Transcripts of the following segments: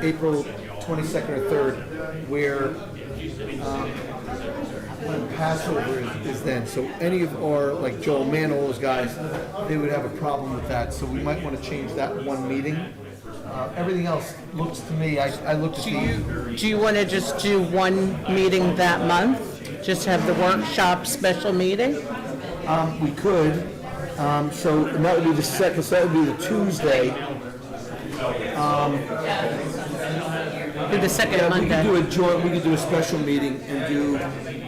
April 22nd or 3rd, where um, when Passover is, is then. So any of our, like Joel Mann, all those guys, they would have a problem with that. So we might want to change that one meeting. Uh, everything else looks to me, I, I looked at Do the, you, do you want to just do one meeting that month? Just have the workshop special meeting? um, we could, um, so and that would be the second, so that would be the Tuesday. Do the second Yeah, we could do Monday? a joint, we could do a special meeting and do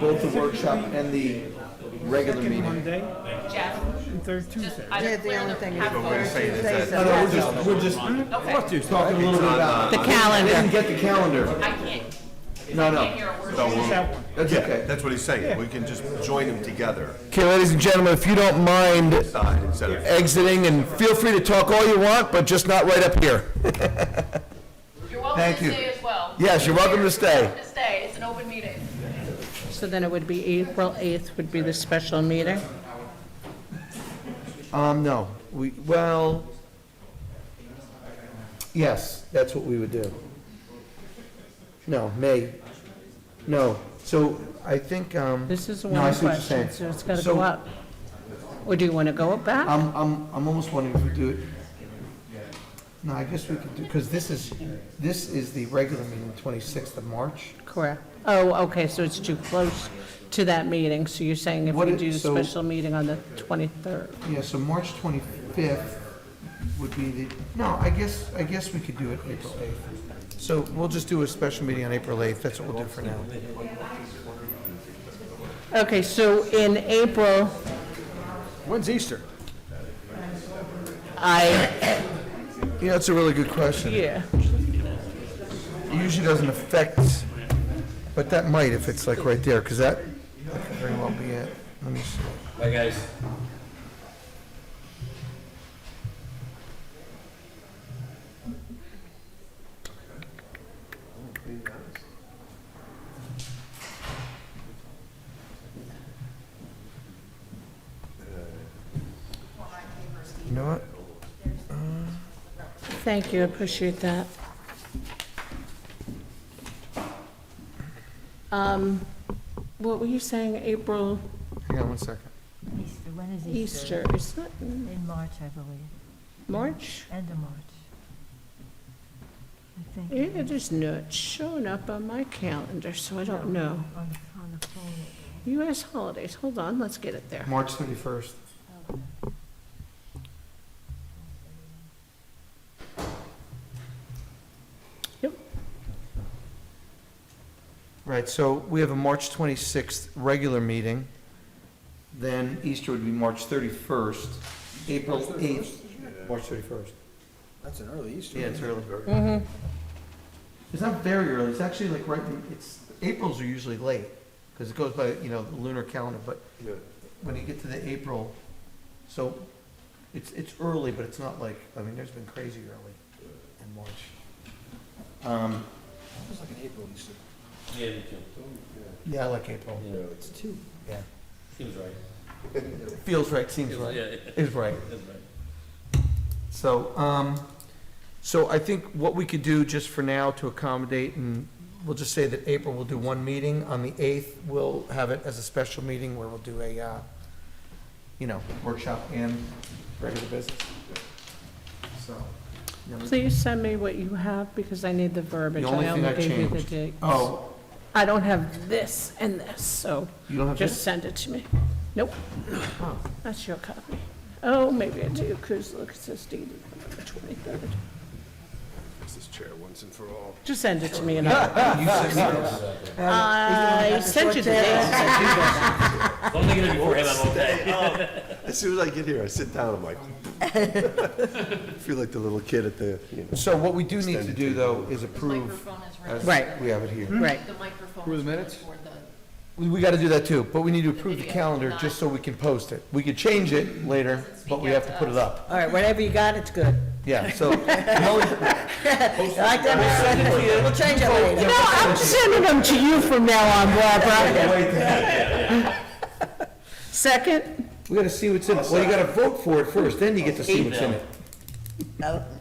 both the workshop and the regular meeting. Monday Jeff, and third Tuesday. I Yeah, don't the only thing is. have first Thursday. Tuesday is No, a no, we're festival. just, we're just talking a little bit about. The I didn't calendar. get the calendar. I can't, No, can't no, hear a word. So we'll- That one. that's Yeah, okay. that's what he's saying. We can just join them together, Okay, ladies and gentlemen, if you don't mind side instead of. exiting, and feel free to talk all you want, but just not right up here. You're welcome Thank to you. stay as well. Yes, you're welcome to You're stay. welcome to stay, it's an open meeting. So then it would be April 8th would be the special meeting? Um, no, we, well, yes, that's what we would do. No, May, no, so I think, um. This is the no, I one see what you're question, saying. so it's got to So, Um, go up. Or do you want to go up back? I'm, I'm, I'm almost wondering if we do it. No, I guess we could do, because this is, this is the regular meeting, twenty-sixth of March. Correct. Oh, okay, so it's too close to that meeting, so you're saying if What we it- do the so- special meeting on the 23rd? Yeah, so March twenty-fifth would be the, no, I guess, I guess we could do it April eighth. So we'll just do a special meeting on April eighth, that's what we'll do for now. Okay, so in April, When's Easter? I, Yeah, that's a really good question. It yeah, usually doesn't affect, but that might if it's like right there, because that that could very well be it. Let me see. Bye, guys. You know what? thank you, I appreciate that. Um, What were you saying, April, Hang on one second. Easter, when is Easter, Easter? is that in In March, I believe, March? end of March. I think. Yeah, It is not showing up on my calendar, so I don't know. On, on the phone. US holidays, hold on, let's get it there. March thirty-first. Yep. Right, so we have a March 26th regular meeting, then Easter would be March 31st, April 8th. March 31st. That's an early Easter. Yeah, it's early. Mm-hmm. It's not very early, it's actually like right, in- it's, Aprils are usually late, because it goes by, you know, the lunar calendar, but Yeah. when you get to the April, so it's, it's early, but it's not like, I mean, there's been crazy early in March. Um, It was like an April Easter. Yeah, me too. Yeah, I like April. Yeah, It's two. seems right. Feels right, seems Feels- right, Yeah, is right. that's right. So, um, so I think what we could do just for now to accommodate, and we'll just say that April will do one meeting, on the eighth, we'll have it as a special meeting where we'll do a, uh, you know, workshop and regular business. So. you know, Please send me what you have, because I need the verbiage. The only thing I gave you the changed. dates. Oh, I don't have this and this, so you don't have just this? send it to me. Nope, Oh. that's your copy. Oh, maybe I do, because look, it says dated November 23rd. This is chair once and for all. Just send it to me and I'll. I sent you the dates. As long as I get it before him, I'm okay. As soon as I get here, I sit down, I'm like. Feel like the little kid at the, you know. So what we do need to do, though, is approve, Microphone is as ready. Right. we have it here. Right, The microphone. Who are the is ready minutes? for the- We, we gotta do that too, but we need to approve the calendar just so we can post it. We could change it later, but we have to put it up. all right, whatever you got, it's good. Yeah, so, the only- Like that, we'll change it later. No, I'm sending them to you from now on, Barbara. Second? we gotta see what's in it. Well, you gotta vote for it first, then you get to see what's in it. No,